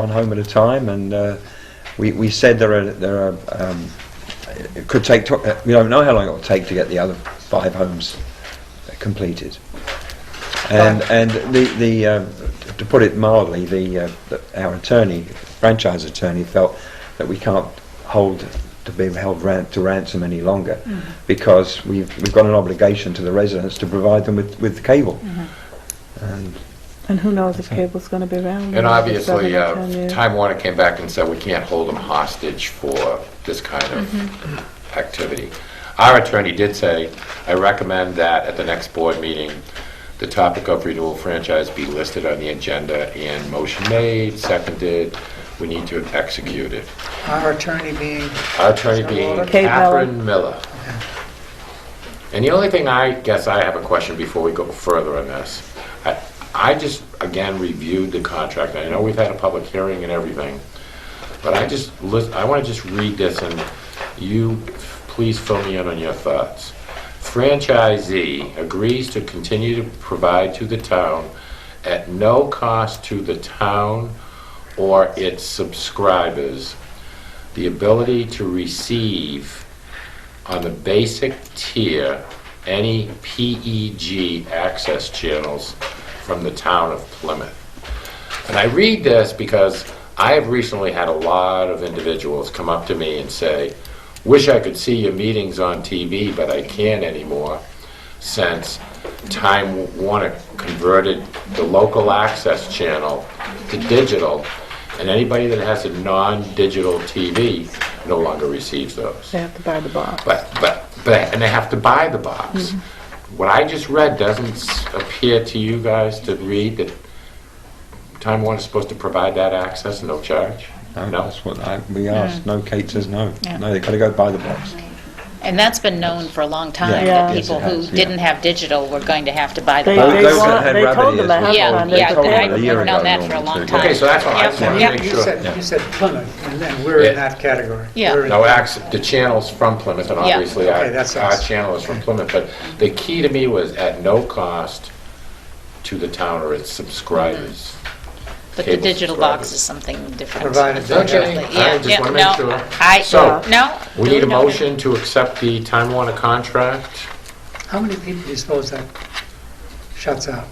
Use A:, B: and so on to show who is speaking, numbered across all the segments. A: one home at a time, and uh, we, we said there are, there are, um, it could take, to- uh, we don't know how long it will take to get the other five homes completed. And, and the, the, uh, to put it mildly, the, uh, the- our attorney, franchise attorney, felt that we can't hold, to be held ran- to ransom any longer, because we've, we've got an obligation to the residents to provide them with, with cable. And
B: And who knows if cable's going to be around?
C: And obviously,
B: Seven or
C: uh,
B: 10 years.
C: Time Warner came back and said, we can't hold them hostage for this kind of activity. Our attorney did say, I recommend that at the next board meeting, the topic of renewal franchise be listed on the agenda and motion made, seconded, we need to execute it.
D: Our attorney being,
C: Our attorney being
B: Kate Miller.
C: Catherine Miller. And the only thing I guess I have a question before we go further on this. I- I just, again, reviewed the contract. I know we've had a public hearing and everything, but I just, lis- I want to just read this and you, please fill me in on your thoughts. Franchisee agrees to continue to provide to the town at no cost to the town or its subscribers the ability to receive on the basic tier any PEG access channels from the town of Plymouth. And I read this because I have recently had a lot of individuals come up to me and say, wish I could see your meetings on TV, but I can't anymore since Time Warner converted the local access channel to digital, and anybody that has a non-digital TV no longer receives those.
B: They have to buy the box.
C: But, but, but, and they have to buy the box. What I just read doesn't s- appear to you guys to read that Time Warner's supposed to provide that access, no charge? No?
A: that's what I, we asked. No, Kate says no.
E: Yeah.
A: No, they've got to go buy the box.
E: And that's been known for a long
A: Yeah.
E: time,
B: Yeah.
E: that
A: Yes,
E: people
A: it
E: who
A: has, yeah.
E: didn't have digital were going to have to buy the
B: They-
A: Those-
B: they
A: those
E: box.
B: want-
A: that had
B: they
A: rabbit
B: told them
A: ears
B: that
A: were
E: Yeah,
A: told-
B: they
E: yeah,
B: told them
E: I've
A: a year
E: known
A: ago
E: that for a
A: normally,
E: long
A: too.
E: time.
C: Okay, so that's what I
E: Yeah.
C: just wanted to
E: Yeah.
C: make
D: you
C: sure.
D: said, you said Plymouth, and then we're in
C: Yeah.
D: that category.
E: Yeah.
D: We're in-
C: No access, the channel's from Plymouth, and
E: Yeah.
C: obviously our,
D: Okay, that's
C: our
D: us.
C: channel is from Plymouth, but the key to me was at no cost to the town or its subscribers.
E: But the
C: cable
E: digital box
C: subscribers.
E: is something different.
D: Provided they have-
C: Okay, I just
E: Yeah,
C: wanna make
E: no,
C: sure.
E: I,
C: So,
E: no.
C: We need a
E: no, no.
C: motion to accept the Time Warner contract.
D: How many people do you suppose that shuts out?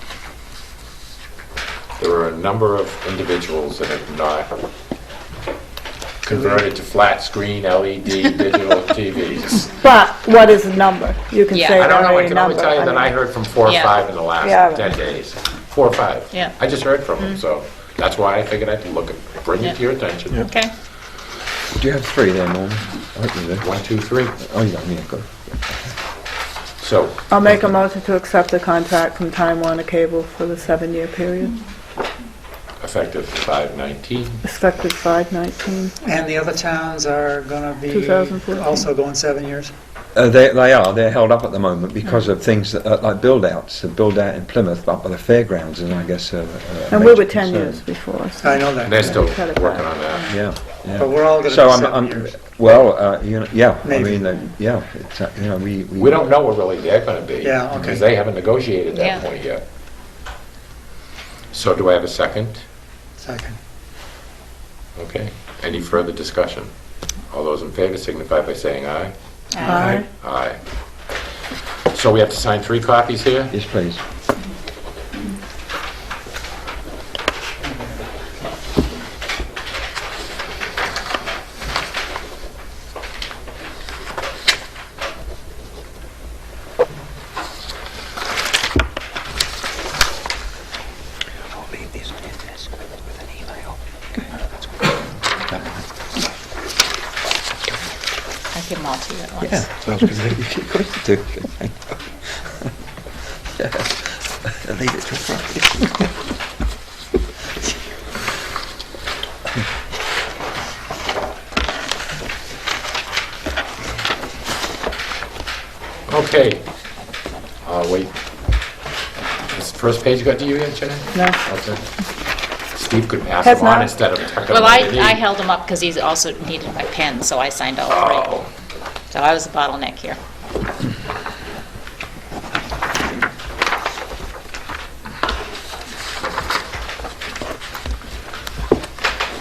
C: There are a number of individuals that have not converted to flat screen LED digital TVs.
B: But what is the number? You can
E: Yeah.
B: say
C: I
B: that
C: don't know, I
B: any
C: can only
B: number.
C: tell you that I
B: I mean,
C: heard from four or
E: Yeah.
C: five in the last
B: Yeah.
C: 10 days. Four or five.
E: Yeah.
C: I just heard from them, so that's why I figured I'd look, at bring it to your attention.
E: Okay,
A: Do you have three there, Norman? I hope you do.
C: One, two, three.
A: Oh, you got me, good.
C: So,
B: I'll make a motion to accept the contract from Time Warner Cable for the seven-year period,
C: effective 5/19.
B: effective 5/19.
D: And the other towns are going to be
B: 2014.
D: also going seven years?
A: Uh, they, they are, they're held up at the moment because of things that, uh, like build-outs, the build-out in Plymouth, up by the fairgrounds, and I guess a- a
B: And we
A: major
B: were 10
A: concern.
B: years before, so.
D: I know that.
C: And they're still
B: Cut it
C: working
B: back.
C: on that.
A: Yeah, yeah.
D: But we're all going to
A: So
D: be
A: I'm,
D: seven
A: I'm,
D: years.
A: well, uh, you know, yeah, I
D: Maybe.
A: mean, uh, yeah, it's, uh, you know, we.
C: We don't know where really they're gonna be.
D: Yeah, okay.
C: Because they haven't negotiated
E: Yeah.
C: that point yet. So do I have a second?
D: Second.
C: Okay. Any further discussion? All those in favor signify by saying aye.
B: Aye.
C: Aye. So we have to sign three copies here?
A: Yes, please.
E: I give them all to you at once.
A: Of course you do. Yeah. Leave it till Friday.
C: Okay. Uh, wait. This first page got to you yet, Jenny?
B: No.
C: Okay. Steve could pass
B: Has
C: them on
B: not.
C: instead of tucking them
E: Well, I,
C: underneath.
E: I held him up because he's also needed my pen, so I signed all three.
C: Oh.
E: So I was a bottleneck here.